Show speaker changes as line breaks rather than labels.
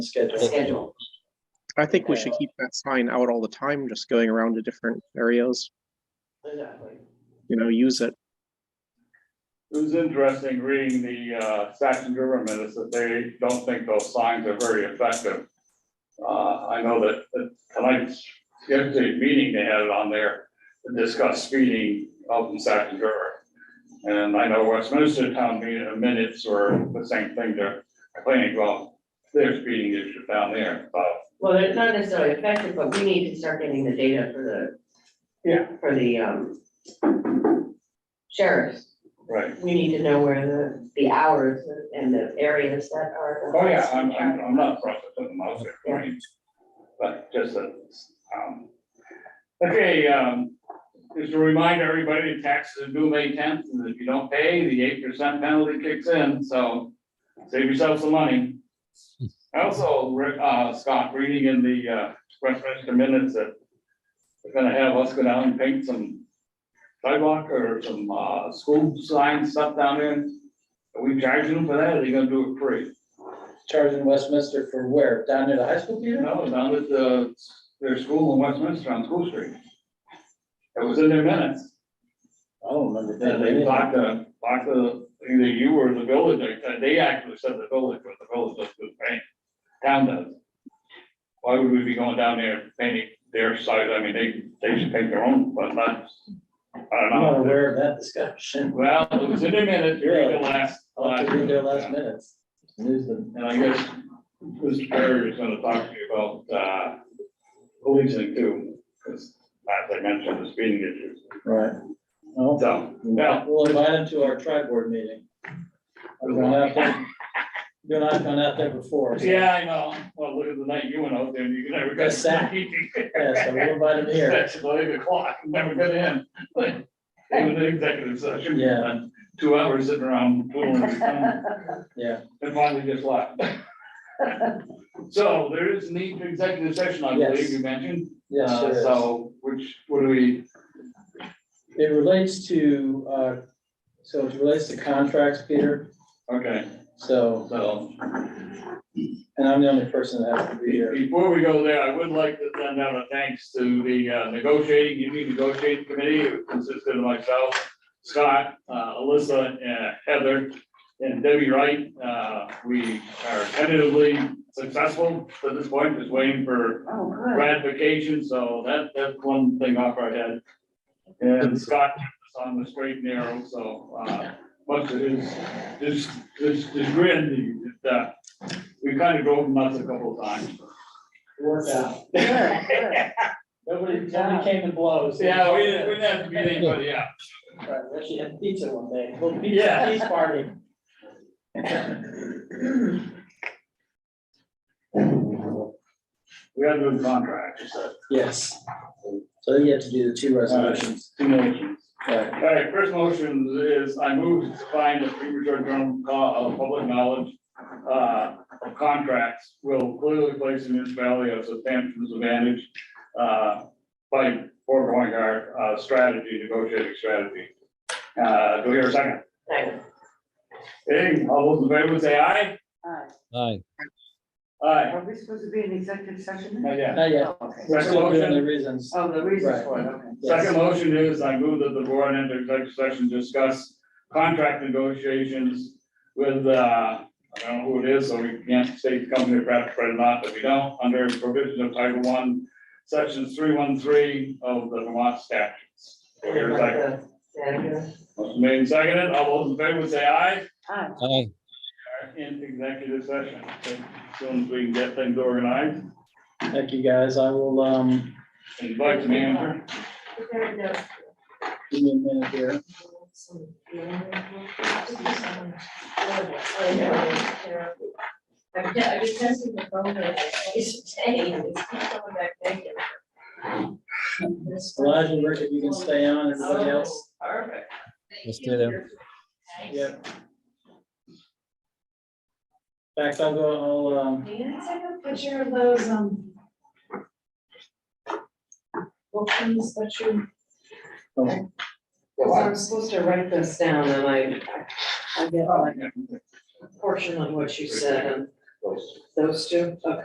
schedule.
schedule.
I think we should keep that sign out all the time, just going around to different areas,
Exactly.
you know, use it.
It was interesting reading the uh, Saxon River minutes that they don't think those signs are very effective. Uh, I know that that tonight's, yesterday's meeting, they had it on there to discuss speeding out in Saxon River. And I know Westminster Town meeting uh, minutes were the same thing, they're complaining, well, there's speeding issue down there, but
Well, it's not necessarily effective, but we need to start getting the data for the.
Yeah.
For the, um. Sheriffs,
right.
we need to know where the, the hours and the areas that are.
Oh, yeah, I'm, I'm, I'm not frustrated with the mouse there, right? But just a, um, okay, um, just to remind everybody, taxes are due May tenth, and if you don't pay, the eight percent penalty kicks in, so save yourself some money. Also, re- uh, Scott, reading in the, uh, Westminster minutes that they're gonna have us go down and paint some sidewalk or some, uh, school sign stuff down there. Are we charging them for that, or are they gonna do it free?
Charging Westminster for where? Down near the high school
You
theater?
know, down at the, their school in Westminster on School Street. It was in their minutes,
I don't remember.
and they blocked the, blocked the, either you or the village, they- uh, they actually said the village, but the village does good paint. Town does. Why would we be going down there and painting their side, I mean, they, they should paint their own, but not, I
I'm not
don't know.
aware of that discussion.
Well, it was in their minutes, during the last.
I'll have to read their last minutes. News them.
And I guess Mr. Perry is gonna talk to you about, uh, policing too, because as I mentioned, the speeding issues.
Right. Well,
So, yeah,
we'll invite them to our tri board meeting. I've gone out there, you and I've gone out there before. so-
yeah, I know. Well, look at the night you went out there, and you never got.
That's sad. Yeah, so we'll invite them here.
That's about eight o'clock, never got in. It was an executive session.
Yeah.
and Two hours sitting around, twiddling your thumbs.
Yeah,
And finally just left. So there is need for executive session, I
Yes.
believe you mentioned.
yes,
Uh,
sure is.
So which, what do we,
It relates to, uh, so it relates to contracts, Peter,
okay,
so,
so
and I'm the only person that has to be
be-
here.
before we go there, I would like to send out a thanks to the uh, negotiating, union negotiating committee, who consisted of myself, Scott, uh, Alyssa, and Heather, and Debbie Wright. Uh, We are tentatively successful at this point, just waiting for
Oh, good.
ratification, so that, that's one thing off our head. And Scott kept us on the straight and narrow, so, uh, much of his, his, his, his grin, he- uh, we kind of drove him nuts a couple of times.
Work out.
Good, good.
Nobody, nobody came and blows.
Yeah, we didn't, we didn't have to beat anybody up.
Right, we actually had pizza one day, little
Yeah.
pizza, pizza party.
We had to do contracts, so,
Yes. So you have to do the two resolutions.
two motions.
Right.
All right, first motion is I move to find a premature journal of public knowledge uh, of contracts will clearly place the municipality at a substantial disadvantage uh, by foregoing our uh, strategy, negotiating strategy. Uh, Do we hear a second?
Thanks.
Hey, all those in favor say aye?
Aye,
Aye.
Are we supposed to be in executive session?
Not yet.
Not yet.
Oh, okay.
We're still doing the reasons.
Oh, the reasons for it, okay.
Yes.
Second motion is I move that the board enter executive session, to discuss contract negotiations with, uh, I don't know who it is, so we can't state the company or perhaps or not, but we don't, under provision of Title One, Section three one three of the Vermont statutes. Do we hear a second?
Yeah, good.
Motion made and seconded. All those in favor say aye.
aye.
We are In executive session, as soon as we can get things organized,
Thank you, guys. I will, um,
invite the manager.
give me a minute here.
I'm just, I'm just testing the phone, but it's saying, it's keep coming back negative. This one.
Elijah, Rick, if you can stay on, everybody else.
Perfect.
Let's do them.
Thank you.
Yep. In fact, I'll go, I'll, um,
Dan, take a picture of those, um. What things that you,
So I'm supposed to write this down and I, I get like a portion of what you said and
Those two.
Those two, okay.